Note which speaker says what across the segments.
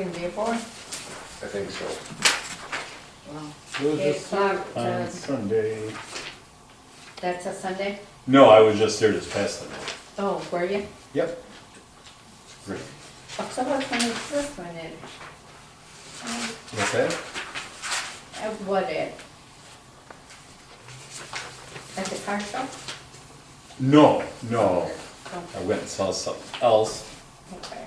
Speaker 1: in Dearborn?
Speaker 2: I think so.
Speaker 1: Wow.
Speaker 3: Was
Speaker 1: Eight
Speaker 3: this
Speaker 1: o'clock, uh,
Speaker 3: on Sunday?
Speaker 1: that's a Sunday?
Speaker 3: No, I was just there this past Sunday.
Speaker 1: Oh, were you?
Speaker 3: Yep.
Speaker 1: October twenty-first, when it, uh,
Speaker 3: What's that?
Speaker 1: at what at? At the car show?
Speaker 3: No, no.
Speaker 1: Oh,
Speaker 3: I went and saw something else
Speaker 1: Okay.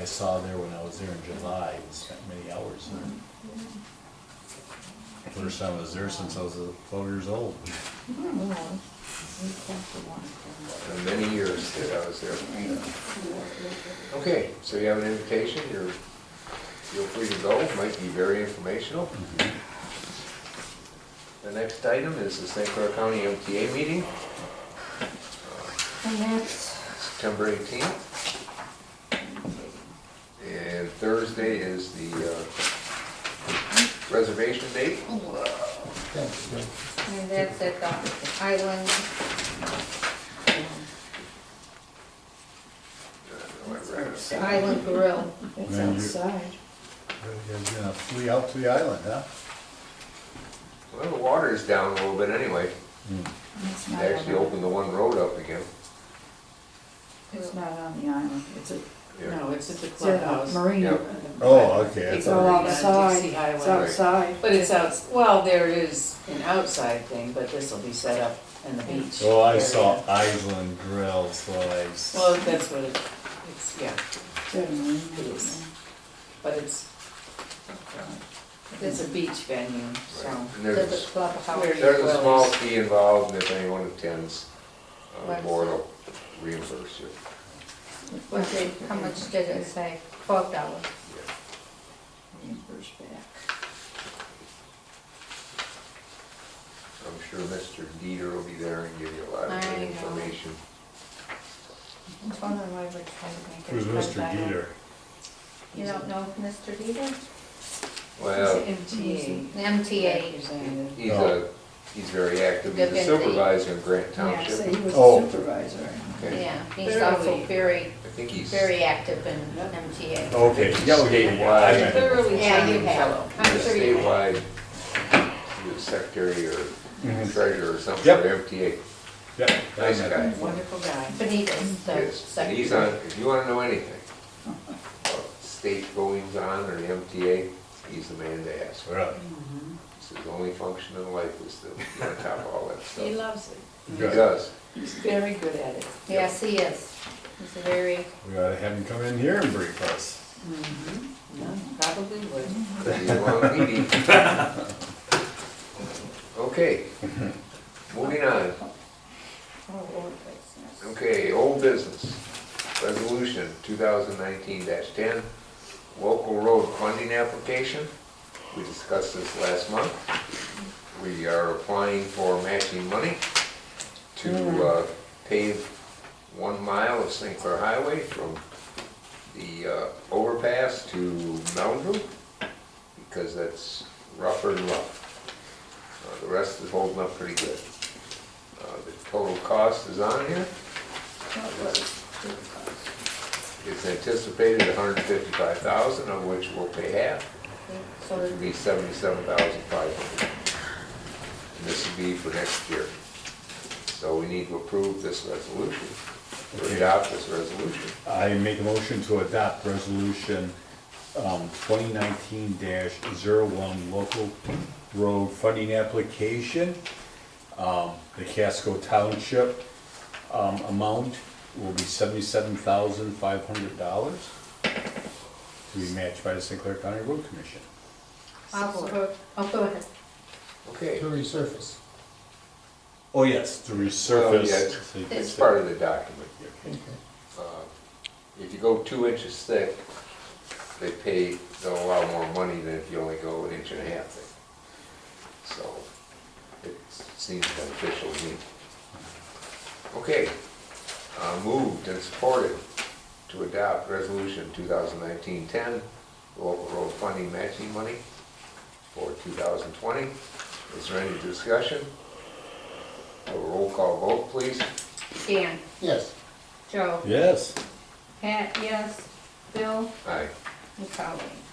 Speaker 3: I saw there when I was there in July. I spent many hours there. First time I was there since I was uh, twelve years old.
Speaker 1: Hmm,
Speaker 2: In uh, many years that I was there. Okay, so you have an invitation, you're, feel free to go, might be very informational. The next item is the St. Clair County MTA meeting,
Speaker 1: And that's,
Speaker 2: September eighteenth. And Thursday is the uh, reservation date.
Speaker 1: and that's at the Island, Island Grill.
Speaker 4: It's
Speaker 3: Man, you-
Speaker 4: outside.
Speaker 3: You're gonna flee out to the island, huh?
Speaker 2: Well, the water is down a little bit anyway.
Speaker 4: It's
Speaker 2: They
Speaker 4: not on
Speaker 2: actually
Speaker 4: the,
Speaker 2: opened the one road up again.
Speaker 4: it's not on the island. It's a,
Speaker 2: Yeah.
Speaker 5: No, it's at the
Speaker 4: it's a
Speaker 5: clubhouse.
Speaker 4: marina.
Speaker 2: Yeah.
Speaker 3: Oh, okay. I
Speaker 4: It's
Speaker 5: It's
Speaker 4: all
Speaker 3: thought-
Speaker 5: already on
Speaker 4: outside.
Speaker 5: Dixie Highway.
Speaker 4: It's outside.
Speaker 5: But it's out, well, there is an outside thing, but this will be set up in the beach.
Speaker 3: Oh, I
Speaker 5: area.
Speaker 3: saw Island Grill, so I. s-
Speaker 5: Well, that's what it, it's, yeah,
Speaker 4: It's a marina.
Speaker 5: It is. but it's, it's a beach venue, so.
Speaker 2: And
Speaker 1: To
Speaker 2: there's a
Speaker 1: the clubhouse.
Speaker 5: Where-
Speaker 2: There's a small fee involved, and if anyone attends, uh, the board will reimburse you.
Speaker 1: Was it, how much did it say? Twelve dollars.
Speaker 4: Reimburse back.
Speaker 2: I'm sure Mr. Dieter will be there and give you a lot of
Speaker 1: I
Speaker 2: good
Speaker 1: know.
Speaker 2: information.
Speaker 1: It's one of my rich friends, I think.
Speaker 3: Who's Mr. Dieter?
Speaker 1: You don't know Mr. Dieter?
Speaker 2: Well,
Speaker 5: It's an MTA.
Speaker 1: MTA.
Speaker 5: representative.
Speaker 2: he's a, he's very active, he's a
Speaker 1: Good
Speaker 2: supervisor in Grant
Speaker 4: Yeah, so he
Speaker 2: Township.
Speaker 4: was
Speaker 3: Oh.
Speaker 4: a supervisor.
Speaker 2: Okay.
Speaker 1: Yeah, he's
Speaker 5: Very
Speaker 1: also
Speaker 5: late.
Speaker 1: very,
Speaker 2: I think he's,
Speaker 1: very active in MTA.
Speaker 3: Okay, yeah, okay, yeah, I
Speaker 2: Why?
Speaker 3: remember.
Speaker 5: Thoroughly
Speaker 1: Yeah, you
Speaker 5: charming
Speaker 1: have.
Speaker 5: fellow.
Speaker 2: he's
Speaker 1: I'm
Speaker 2: a
Speaker 1: sure you have.
Speaker 2: statewide, he was secretary or
Speaker 3: Mhm.
Speaker 2: treasurer or something
Speaker 3: Yep.
Speaker 2: for MTA.
Speaker 3: Yeah, I
Speaker 2: Nice
Speaker 3: remember.
Speaker 2: guy.
Speaker 5: Wonderful guy.
Speaker 1: Benitez, the
Speaker 2: Yes, and he's on,
Speaker 1: secretary.
Speaker 2: if you wanna know anything about state goings on or the MTA, he's the man to ask.
Speaker 3: Really?
Speaker 2: It's his only function in life is to be on top of all that stuff.
Speaker 5: He loves it.
Speaker 2: He
Speaker 3: Good.
Speaker 2: does.
Speaker 5: He's very good at it.
Speaker 1: Yes, he is. He's a very,
Speaker 3: We ought to have him come in here and brief us.
Speaker 5: Yeah, Probably would.
Speaker 2: He's a long meeting. Okay, moving on.
Speaker 1: oh, old business.
Speaker 2: Okay, old business. Resolution two thousand nineteen ten, local road funding application. We discussed this last month. We are applying for matching money to uh, pave one mile of St. Clair Highway from the uh, overpass to Mountain View, because that's rougher and rough. Uh, The rest is holding up pretty good. Uh, The total cost is on here. It's anticipated hundred fifty-five thousand, of which we'll pay half,
Speaker 1: So
Speaker 2: which would be seventy-seven thousand five hundred. And this would be for next year. So we need to approve this resolution, or
Speaker 3: Okay.
Speaker 2: adopt this resolution.
Speaker 3: I make a motion to adopt resolution um, 2019-01, local road funding application. Um, The Casco Township um, amount will be $77,500. To be matched by the St. Clair County Road Commission.
Speaker 1: I'll go, I'll go ahead.
Speaker 2: Okay,
Speaker 6: resurface.
Speaker 3: Oh, yes, to resurface.
Speaker 2: Oh, yeah, it's-
Speaker 3: so you can
Speaker 2: it's
Speaker 3: say-
Speaker 2: part of the document.
Speaker 3: Okay.
Speaker 2: Uh, If you go two inches thick, they pay, they'll allow more money than if you only go an inch and a half thick. So it seems beneficial to me. Okay, uh, moved and supported to adopt resolution 2019-10, local road funding matching money for 2020. Is there any discussion? A roll call vote, please.
Speaker 1: Dan,
Speaker 6: Yes.
Speaker 1: Joe,
Speaker 3: Yes.
Speaker 1: Pat, yes, Bill,
Speaker 2: Aye.
Speaker 1: You're probably.